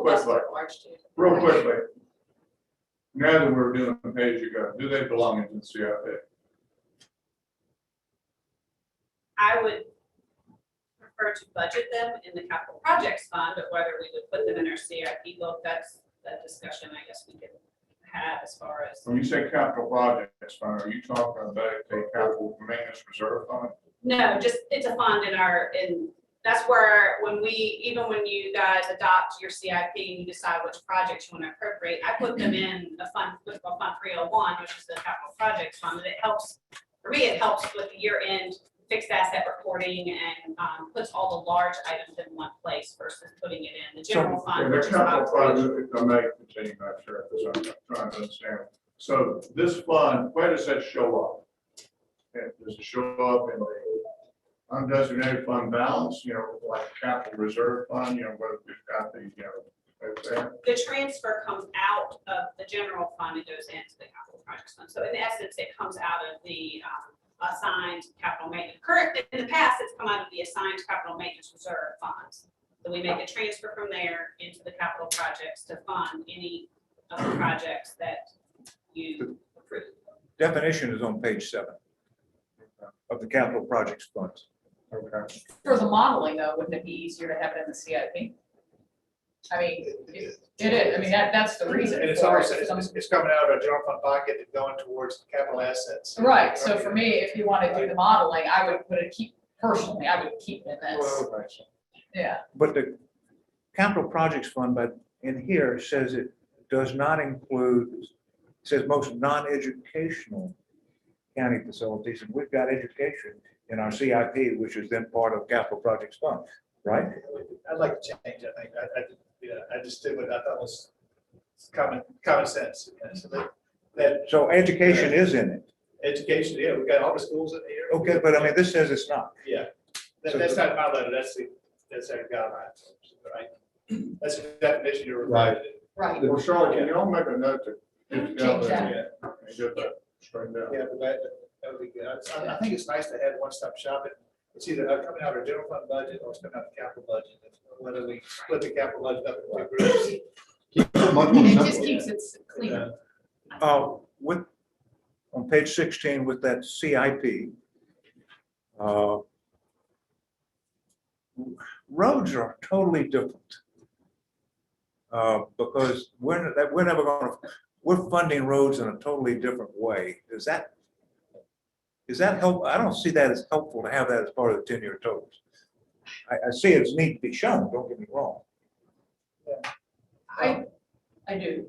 quick, like, March to- real quickly. Now that we're doing the page you go, do they belong in the CIP? I would prefer to budget them in the capital projects fund, but whether we would put them in our CIP book, that's, that discussion, I guess we could have as far as, When you say capital projects fund, are you talking about a capital maintenance reserve fund? no, just, it's a fund in our, in, that's where, when we, even when you guys adopt your CIP and you decide which projects you want to appropriate, I put them in the fund, what's called Fund three oh one, which is the capital projects fund, and it helps, for me, it helps with the year-end fixed asset reporting and um, puts all the large items in one place versus putting it in the general Yeah, fund. the which is about capital three- project, if I may continue, I'm sure, because I'm trying to understand. So this fund, where does that show up? And Does it show up in the undesignated fund balance, you know, like capital reserve fund, you know, what we've got the, you know, right there? The transfer comes out of the general fund and goes into the capital projects fund. So in essence, it comes out of the um, assigned capital maintenance. Current, in the past, it's come out of the assigned capital maintenance reserve funds. So we make a transfer from there into the capital projects to fund any of the projects that you approve. Definition is on page seven of the capital projects funds. Okay. For the modeling though, wouldn't it be easier to have it in the CIP? I mean, it it is, I mean, that, that's the reason. And it's for it. always, it's, it's coming out of our general fund pocket and going towards capital assets. Right, so for me, if you want to do the modeling, I would put it, keep, personally, I would keep it in this, Well, right, so yeah. But the capital projects fund, but in here says it does not include, says most non-educational county facilities, and we've got education in our CIP, which is then part of capital projects fund, right? I'd like to change, I think, I, I, yeah, I just did what I thought was common, common sense. you know, so that- That So education is in it. education, yeah, we've got all the schools in here. Okay, but I mean, this says it's not. Yeah, that, that's not my letter, that's the, that's our guideline, right? That's the definition you're provided. Right. Well, Charlotte, can y'all make a note to? Change that. Yeah, and Get that straightened out. Yeah, but that, that would be good. I, I think it's nice to have one-stop shopping. It's either uh, coming out of our general fund budget or it's coming out of the capital budget. Whether we split the capital budget up into two groups. Much more It just simple. keeps it clean. uh, Uh, with, on page sixteen with that CIP. uh, Roads are totally different. Uh, because we're, that, we're never gonna, we're funding roads in a totally different way. Is that? Is that help? I don't see that as helpful to have that as part of the ten-year totals. I, I see it's need to be shown, don't get me wrong. I, I do.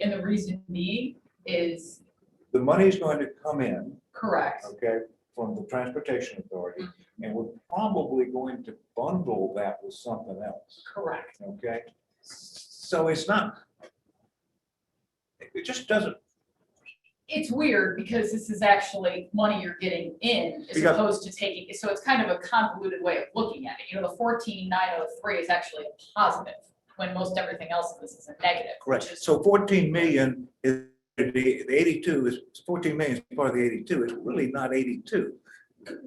And the reason being is The money's going to come in. correct, okay, from the Transportation Authority, and we're probably going to bundle that with something else, correct. okay? So it's not, it- it just doesn't, It's weird because this is actually money you're getting in as Because- opposed to taking, so it's kind of a convoluted way of looking at it. You know, the fourteen nine oh three is actually a positive when most everything else in this is a negative. correct, which is- so fourteen million is, the the eighty-two is, fourteen million is part of the eighty-two, it's really not eighty-two.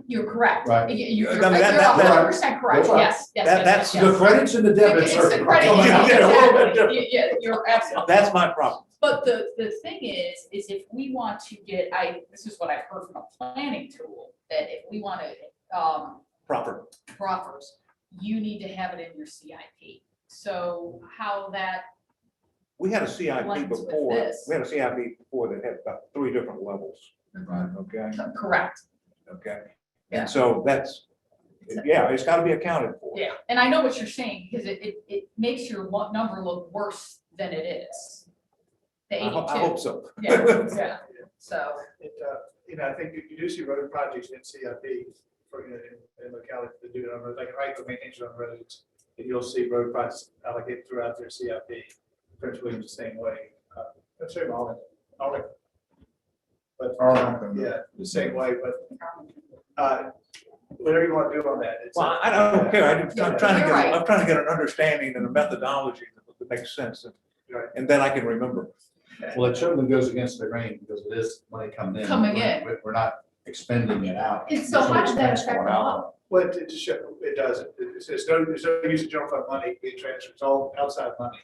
You're correct. Right. You- You're I mean, that- you're a that- hundred percent correct. that's right. Yes, yes, That- yes, that's yes, The yes. credits and the debits It's are. the credit. are- yes, Yeah, a little bit exactly. different. Y- Yeah, you're absolutely. That's my problem. But the, the thing is, is if we want to get, I, this is what I've heard from a planning tool, that if we want to, um, proper. proffers, you need to have it in your CIP. So how that, We had a CIP Blends with before, this. we had a CIP before that had about three different levels, okay, correct, okay? Yeah. And so that's, yeah, it's gotta be accounted for. yeah. And I know what you're saying, because it, it, it makes your lo- number look worse than it is. The I ho- I eighty-two, hope so. yeah, yeah, so. It, uh, you know, I think you, you do see road projects in CIP for, you know, in- in locality to do it on, roads, like right for maintenance on roads. And you'll see road projects allocated throughout their CIP, Prince William the same way. uh, Prince William, all, in- all. in- But, Arlington. yeah, the same way, but, uh, whatever you want to do on that. it's- Well, I don't care. I'm just- I'm trying to You're get, right. I'm trying to get an understanding and a methodology that makes sense. and- Right. And then I can remember. Well, it certainly goes against the grain because it is money coming in. Coming We're- in. We're we're not expending it out. And so how does that Expense affect going the out. law? But it just, show- it doesn't, it's, it's no, there's no use of general fund money being transferred, it's all outside money.